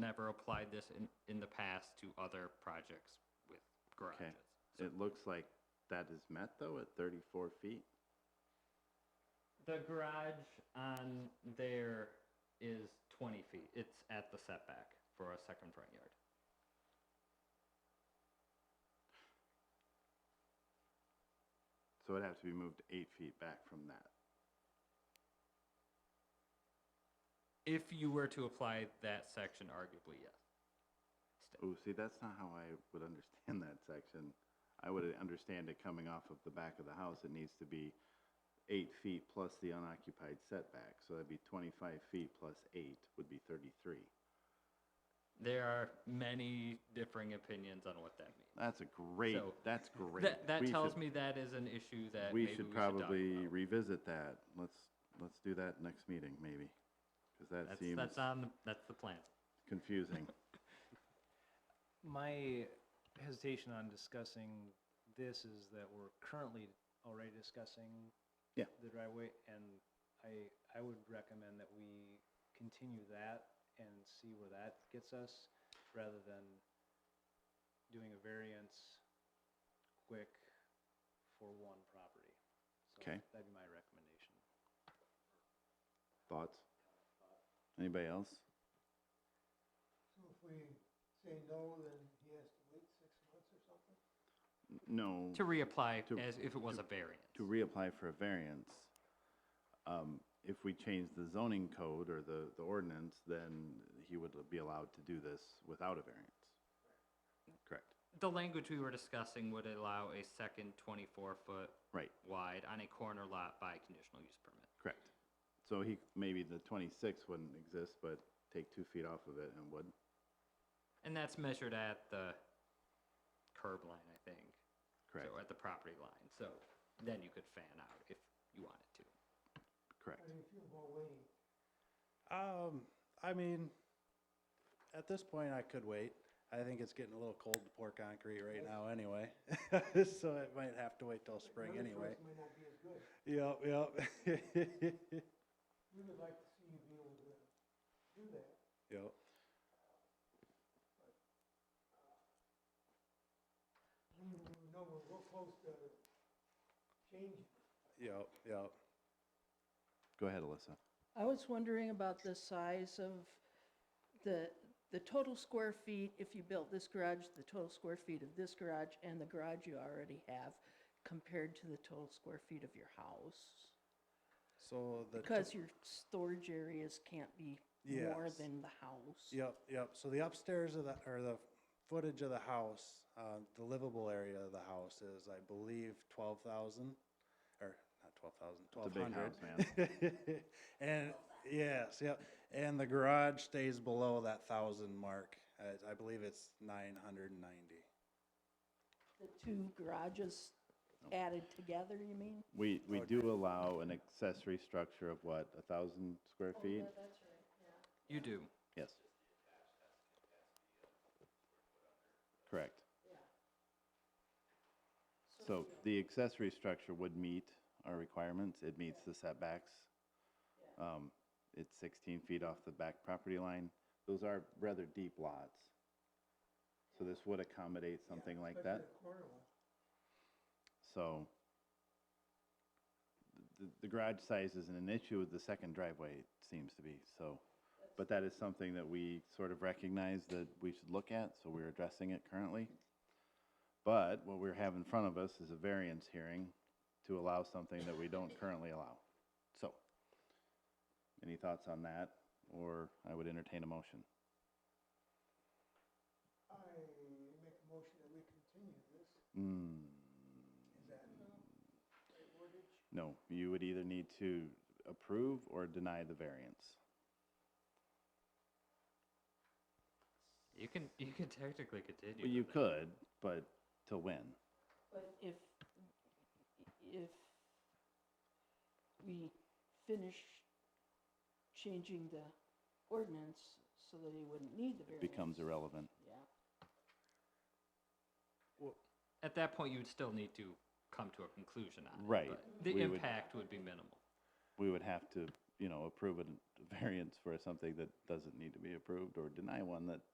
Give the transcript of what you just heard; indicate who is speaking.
Speaker 1: never applied this in, in the past to other projects with
Speaker 2: Okay.
Speaker 1: garages.
Speaker 2: It looks like that is met though at 34 feet.
Speaker 1: The garage on there is twenty feet. It's at the setback for a second front yard.
Speaker 2: So it'd have to be moved eight feet back from that.
Speaker 1: If you were to apply that section, arguably, yes.
Speaker 2: Oh, see, that's not how I would understand that section. I would understand it coming off of the back of the house, it needs to be eight feet plus the unoccupied setback. So that'd be 25 feet plus eight would be 33.
Speaker 1: There are many differing opinions on what that means.
Speaker 2: That's a great,
Speaker 1: So,
Speaker 2: that's great.
Speaker 1: That,
Speaker 2: We
Speaker 1: that tells
Speaker 2: should-
Speaker 1: me that is an issue that
Speaker 2: We
Speaker 1: maybe
Speaker 2: should
Speaker 1: talk
Speaker 2: probably
Speaker 1: about.
Speaker 2: revisit that. Let's, let's do that next meeting, maybe. Because that
Speaker 1: That's,
Speaker 2: seems
Speaker 1: that's on, the- that's the plan.
Speaker 2: confusing.
Speaker 3: My hesitation on discussing this is that we're currently already discussing
Speaker 2: Yeah.
Speaker 3: the driveway, and I, I would recommend that we continue that and see where that gets us, rather than doing a variance quick for one property. So
Speaker 2: Okay.
Speaker 3: That'd be my recommendation.
Speaker 2: Thoughts? Anybody else?
Speaker 4: So if we say no, then he has to wait six months or something?
Speaker 2: N- No.
Speaker 1: To reapply
Speaker 2: Mm. To-
Speaker 1: as if it was a variance.
Speaker 2: to reapply for a variance, um, if we change the zoning code or the, the ordinance, then he would be allowed to do this without a variance. Correct.
Speaker 1: The language we were discussing would allow a second twenty-four foot
Speaker 2: Right,
Speaker 1: wide on a corner lot by conditional use permit.
Speaker 2: correct. So he, maybe the twenty-six wouldn't exist, but take two feet off of it and would.
Speaker 1: And that's measured at the curb line, I think.
Speaker 2: Correct,
Speaker 1: So at the property line, so then you could fan out if you wanted to.
Speaker 2: correct.
Speaker 4: How do you feel about waiting?
Speaker 5: Um, I mean, at this point, I could wait. I think it's getting a little cold to pour concrete right now anyway. So it might have to wait till spring
Speaker 4: Another
Speaker 5: anyway.
Speaker 4: choice may not be as good.
Speaker 5: Yep, yep.
Speaker 4: We would like to see you be able to do that.
Speaker 5: Yep.
Speaker 4: We we know we're real close to changing.
Speaker 5: Yep, yep.
Speaker 2: Go ahead, Alyssa.
Speaker 6: I was wondering about the size of the, the total square feet, if you built this garage, the total square feet of this garage and the garage you already have compared to the total square feet of your house.
Speaker 5: So the. to-
Speaker 6: Because your storage areas can't be more
Speaker 5: Yes.
Speaker 6: than the house.
Speaker 5: Yep, yep. So the upstairs of the, or the footage of the house, uh, the livable area of the house is, I believe, twelve thousand, or not twelve thousand,
Speaker 2: It's a
Speaker 5: twelve
Speaker 2: big
Speaker 5: hundred.
Speaker 2: house, man.
Speaker 5: and yes, yep. And the garage stays below that thousand mark. I, I believe it's nine hundred and ninety.
Speaker 6: The two garages
Speaker 5: Oh.
Speaker 6: added together, you mean?
Speaker 2: We, we do allow an accessory structure of what, a thousand square feet?
Speaker 1: You do.
Speaker 2: Yes. Correct. So the accessory structure would meet our requirements. It meets the setbacks. Um, It's 16 feet off the back property line. Those are rather deep lots. So this would accommodate something like that.
Speaker 4: Especially the corner one.
Speaker 2: So the, the garage size isn't an issue, the second driveway seems to be, so. But that is something that we sort of recognize that we should look at, so we're addressing it currently. But what we have in front of us is a variance hearing to allow something that we don't currently allow. So, any thoughts on that, or I would entertain a motion?
Speaker 4: I make a motion that we continue this.
Speaker 2: Hmm,
Speaker 4: Is that right wordage?
Speaker 2: no, you would either need to approve or deny the variance.
Speaker 1: You can, you can technically continue.
Speaker 2: Well, you
Speaker 1: with it.
Speaker 2: could, but to win.
Speaker 6: But if, if we finish changing the ordinance so that he wouldn't need the variance.
Speaker 2: becomes irrelevant.
Speaker 6: Yeah.
Speaker 1: At that point, you would still need to come to a conclusion on it.
Speaker 2: Right.
Speaker 1: but The
Speaker 2: We would-
Speaker 1: impact would be minimal.
Speaker 2: We would have to you know, approve a variance for something that doesn't need to be approved or deny one that